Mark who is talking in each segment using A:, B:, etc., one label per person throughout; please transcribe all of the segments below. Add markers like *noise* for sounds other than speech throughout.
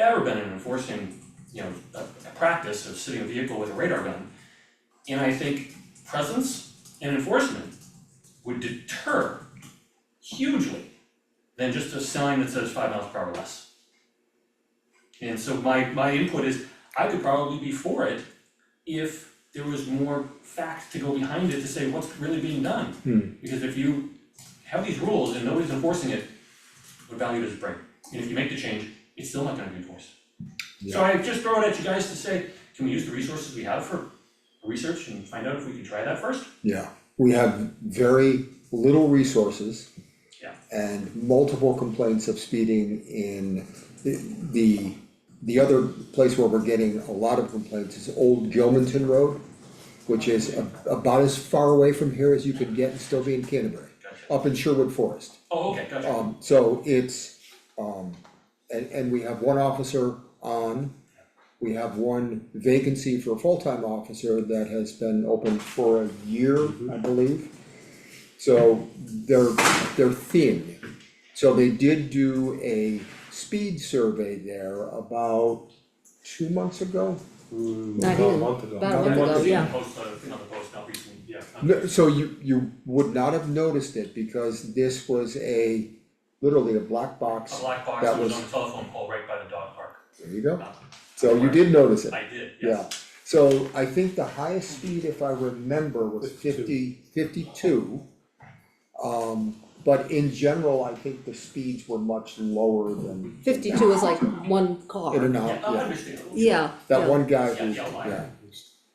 A: ever been an enforcing, you know, a, a practice of sitting a vehicle with a radar gun. And I think presence and enforcement would deter hugely than just a sign that says five miles per hour less. And so my, my input is, I could probably be for it if there was more facts to go behind it to say what's really being done. Because if you have these rules and nobody's enforcing it, what value does it bring? And if you make the change, it's still not gonna be enforced. So I just throw it at you guys to say, can we use the resources we have for research and find out if we can try that first?
B: Yeah, we have very little resources.
A: Yeah.
B: And multiple complaints of speeding in the- the, the other place where we're getting a lot of complaints is Old Gilmanton Road, which is a- about as far away from here as you could get and still be in Canterbury,
A: Gotcha.
B: up in Sherwood Forest.
A: Oh, okay, gotcha.
B: Um, so it's, um, and, and we have one officer on. We have one vacancy for a full-time officer that has been open for a year, I believe. So they're, they're thin. So they did do a speed survey there about two months ago.
C: Not
D: Mm, About a
C: even-
D: month ago.
C: about a
B: About a
C: month
B: month
C: ago,
B: ago.
C: yeah.
A: Post the thing on the post, not recently, yeah. not-
B: No, so you, you would not have noticed it because this was a, literally a black box.
A: A black box
B: That
A: that was
B: was-
A: on a telephone pole right by the dog park.
B: There you go.
A: Uh,
B: So you did notice it.
A: I did, yes.
B: Yeah, so I think the highest speed, if I remember, was 50 52. Um, but in general, I think the speeds were much lower than.
C: Fifty-two is like one car.
B: In and
A: Yeah,
B: out,
A: I
B: yeah,
A: understand.
C: Yeah,
B: that
C: yeah.
B: one guy
A: Yeah,
B: who,
A: yeah, why?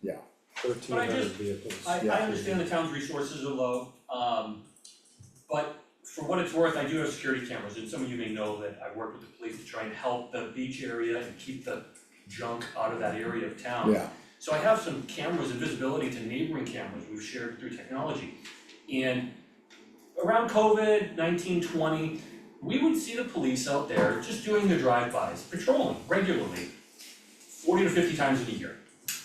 B: yeah,
D: Thirteen hundred vehicles.
A: I
B: Yeah.
A: I understand the town's resources are low, um, but for what it's worth, I do have security cameras, and some of you may know that I work with the police to try and help the beach area and keep the junk out of that area of town.
B: yeah,
A: So I have some cameras and visibility to neighboring cameras we've shared through technology. And around COVID nineteen twenty, we would see the police out there just doing their drive-bys, patrolling regularly, forty to fifty times in a year.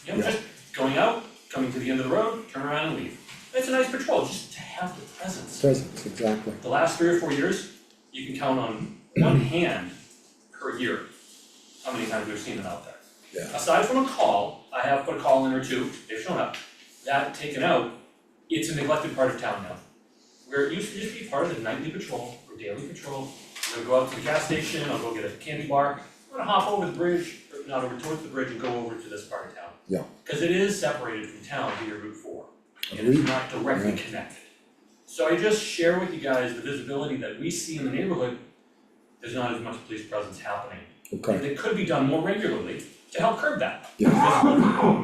A: You know,
B: Yeah.
A: just going out, coming to the end of the road, turn around and leave. It's a nice patrol, just to have the presence.
B: presence, exactly.
A: The last three or four years, you can count on
B: *clears throat*
A: one hand per year, how many times we've seen them out there.
B: Yeah.
A: Aside from a call, I have put a call in or two, they've shown up, that taken out, it's a neglected part of town now. Where it used to just be part of the nightly patrol or daily patrol, I'll go out to the gas station, I'll go get a candy bar, I'm gonna hop over the bridge, or not over towards the bridge and go over to this part of town.
B: Yeah.
A: Cause it is separated from town via Route four, and it's
B: Agreed.
A: not directly
B: Yeah.
A: connected. So I just share with you guys the visibility that we see in the neighborhood, there's not as much police presence happening. And
B: Okay,
A: it could be done more regularly to help curb that.
B: Yeah.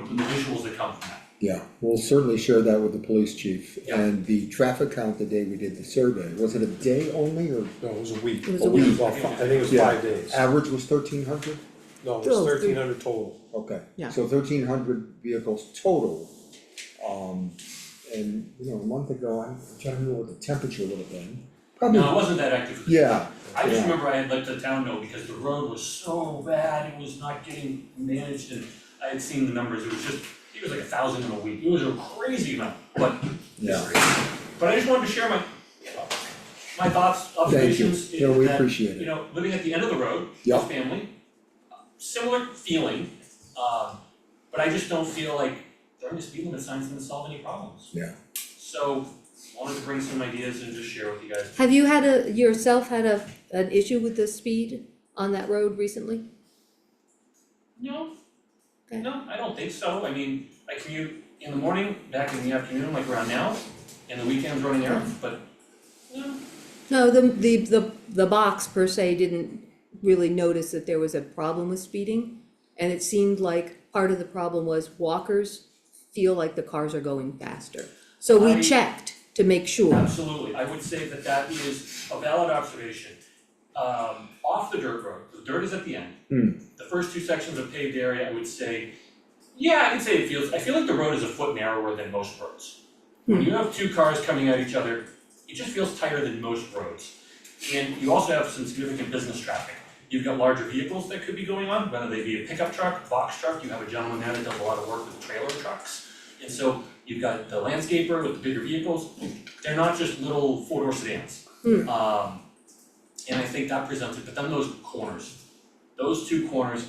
A: Visible, The visuals that come from that.
B: yeah, we'll certainly share that with the police chief.
A: Yeah.
B: And the traffic count the day we did the survey, was it a day only or
D: No, it was a week.
C: It was a week.
D: Well, fi- I think it was
B: Yeah.
D: five days.
B: average was thirteen hundred?
D: No, it
C: Still,
D: was
C: it's three-
D: thirteen hundred total.
B: Okay.
C: Yeah.
B: So thirteen hundred vehicles total. Um, and, you know, a month ago, I'm trying to remember what the temperature would have been. Probably,
A: No, it wasn't that active.
B: yeah,
A: I just
B: yeah.
A: remember I had let the town know because the road was so bad, it was not getting managed and I had seen the numbers, it was just, it was like a thousand in a week, it was a crazy amount, but
B: yeah,
A: But I just wanted to share my, my thoughts,
B: thank you,
A: observations,
B: yeah, we
A: that,
B: appreciate
A: you
B: it,
A: know, living at the end of the road,
B: Yeah.
A: with family, uh, similar feeling, um, but I just don't feel like throwing a speed limit sign's gonna solve any problems.
B: Yeah.
A: So, wanted to bring some ideas and just share with you guys.
C: Have you had a, yourself had a, an issue with the speed on that road recently?
A: No,
C: Okay.
A: no, I don't think so, I mean, I commute in the morning, back in the afternoon, like around now, and the weekends running errands, but, no,
C: No, the, the, the, the box per se didn't really notice that there was a problem with speeding. And it seemed like part of the problem was walkers feel like the cars are going faster. So
A: I-
C: we checked to make sure.
A: Absolutely, I would say that that is a valid observation. Um, off the dirt road, the dirt is at the end.
B: Hmm.
A: The first two sections of paved area, I would say, yeah, I can say it feels, I feel like the road is a foot narrower than most roads. When you have two cars coming at each other, it just feels tighter than most roads. And you also have some significant business traffic. You've got larger vehicles that could be going on, whether they be a pickup truck, box truck, you have a gentleman there that does a lot of work with trailer trucks. And so you've got the landscaper with the bigger vehicles, they're not just little four-door sedans.
C: Hmm.
A: Um, and I think that presents it, but then those corners, those two corners